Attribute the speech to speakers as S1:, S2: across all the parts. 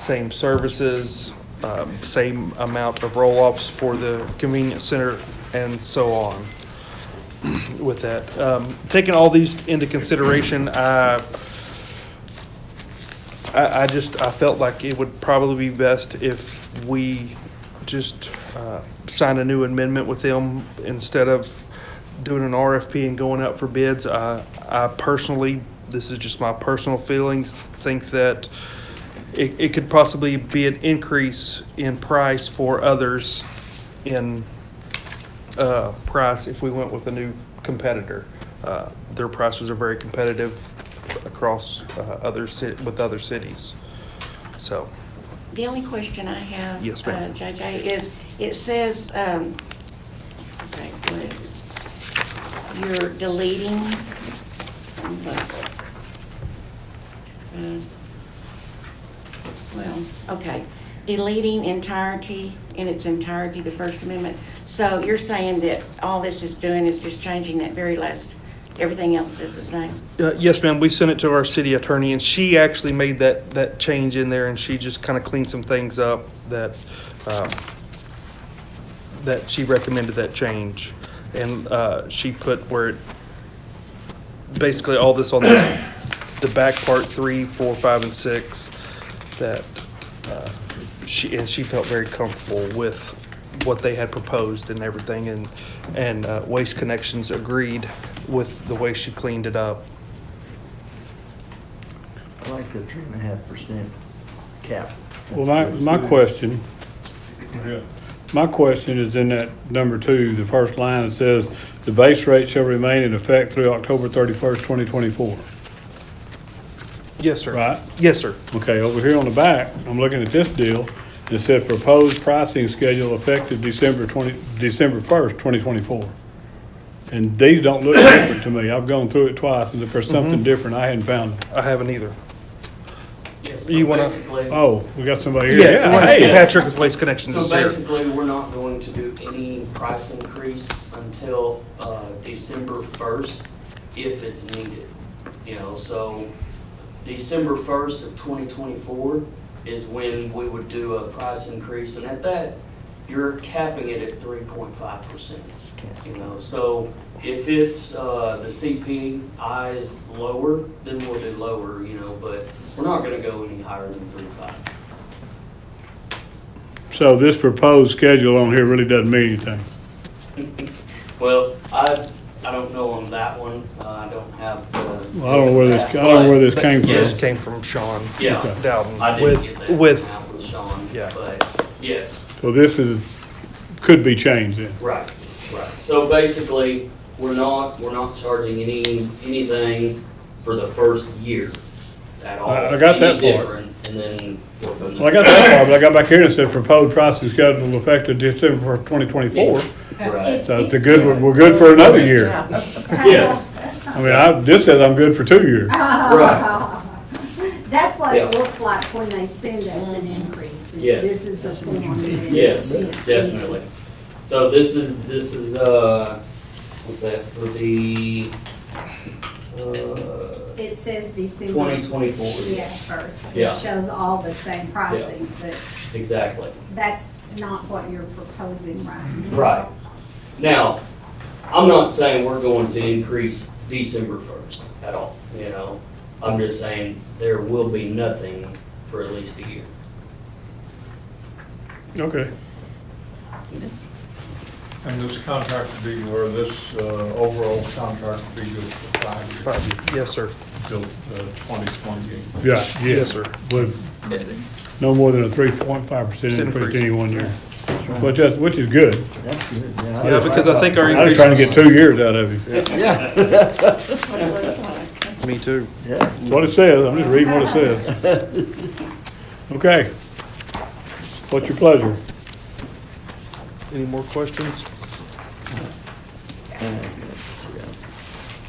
S1: same services, um, same amount of roll-offs for the convenience center, and so on with that. Um, Taking all these into consideration, I, I, I just, I felt like it would probably be best if we just uh, sign a new amendment with them instead of doing an RFP and going out for bids. I, I personally, this is just my personal feelings, think that it, it could possibly be an increase in price for others in uh, price if we went with a new competitor. Uh, Their prices are very competitive across uh, other cit, with other cities. So,
S2: The only question I have.
S1: Yes, ma'am.
S2: uh, JJ, is, it says, um, okay, what is it? You're deleting. uh, um, Well, okay, deleting entirety, in its entirety, the First Amendment. So you're saying that all this is doing is just changing that very last, everything else is the same?
S1: uh, yes, ma'am, we sent it to our city attorney and she actually made that, that change in there and she just kind of cleaned some things up that, um, that she recommended that change. And uh, she put where it, basically all this on this, the back part three, four, five, and six, that uh, she, and she felt very comfortable with what they had proposed and everything, and, and uh, Waste Connections agreed with the way she cleaned it up.
S3: I like the three and a half percent cap.
S4: Well, my, my question, my question is in that number two, the first line, it says, "The base rate shall remain in effect through October thirty-first, twenty twenty-four."
S1: Yes, sir.
S4: Right.
S1: Yes, sir.
S4: Okay, over here on the back, I'm looking at this deal, it says proposed pricing schedule effective December twenty, December first, twenty twenty-four. And these don't look different to me. I've gone through it twice, and if
S1: Mm-hmm.
S4: there's something different, I hadn't found it.
S1: I haven't either.
S5: Yes,
S1: You
S5: so
S1: wanna-
S5: basically,
S4: Oh, we got somebody here.
S1: Yes,
S4: Yeah, hey.
S1: Patrick with Waste Connections
S5: so
S1: is here.
S5: basically, we're not going to do any price increase until uh, December first, if it's needed. You know, so December first of twenty twenty-four is when we would do a price increase, and at that, you're capping it at three point five percent. You know, so if it's, uh, the CPI is lower, then we'll do lower, you know, but we're not gonna go any higher than three five.
S4: So this proposed schedule on here really doesn't mean anything.
S5: Well, I, I don't know on that one, Uh, I don't have the.
S4: Well, I don't know where this- I don't know where this
S5: But-
S4: came
S5: but
S4: from.
S1: This
S5: yes,
S1: came from Sean
S5: Yeah.
S1: Dowden.
S5: I didn't get that
S1: With,
S5: from
S1: with,
S5: that with Sean,
S1: Yeah.
S5: but, yes,
S4: So this is, could be changed then.
S5: right, right. So basically, we're not, we're not charging any, anything for the first year at all.
S4: I- I got that
S5: Any
S4: part.
S5: different, And then. go from
S4: Well, I got that far, but I got back here and it said proposed pricing schedule effective December twenty twenty-four.
S5: there. Right,
S4: So it's a good, we're- we're good for another year.
S5: yes,
S4: I mean, I, this says I'm good for two years.
S5: Right.
S6: That's what it
S5: Yeah. Mm-hmm.
S6: looks like when they send us an increase. is
S5: Yes.
S6: This is the form. that it
S5: yes,
S6: is.
S5: definitely. So this is, this is, uh, what's that, for the, uh,
S6: It says December.
S5: 2024.
S6: Yeah, first. and
S5: Yeah.
S6: It shows all the same pricings, but
S5: Exactly.
S6: that's not what you're proposing right now.
S5: Right. Now, I'm not saying we're going to increase December first at all, you know? I'm just saying there will be nothing for at least a year.
S4: Okay.
S7: And this contract would be, or this uh, overall contract would be good for five years,
S1: yes, sir.
S7: till uh, 2028.
S4: Yeah, yeah,
S1: Yes, sir.
S4: but no more than a three point five percent increase
S1: Increase.
S4: any one year. Which is, which is good.
S3: That's good, yeah.
S1: Yeah, because I think our
S4: I was
S1: increase.
S4: trying to get two years out of you.
S3: Yeah,
S2: What it looks like.
S1: Me too.
S3: yeah.
S4: That's what it says. I'm just reading what it says. Okay. What's your pleasure?
S1: Any more questions?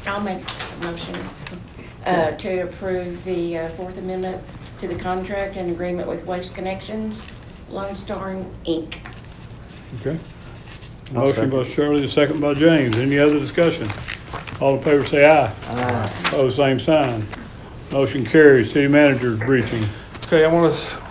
S2: I'll make a motion uh, to approve the uh, Fourth Amendment to the contract and agreement with Waste Connections, Lone Star Inc.
S4: Okay. Motion by Shirley, the second by James. Any other discussion? All in favor say aye.
S3: Aye.
S4: Pose same sign. Motion carries. City manager's briefing.
S1: Okay, I want to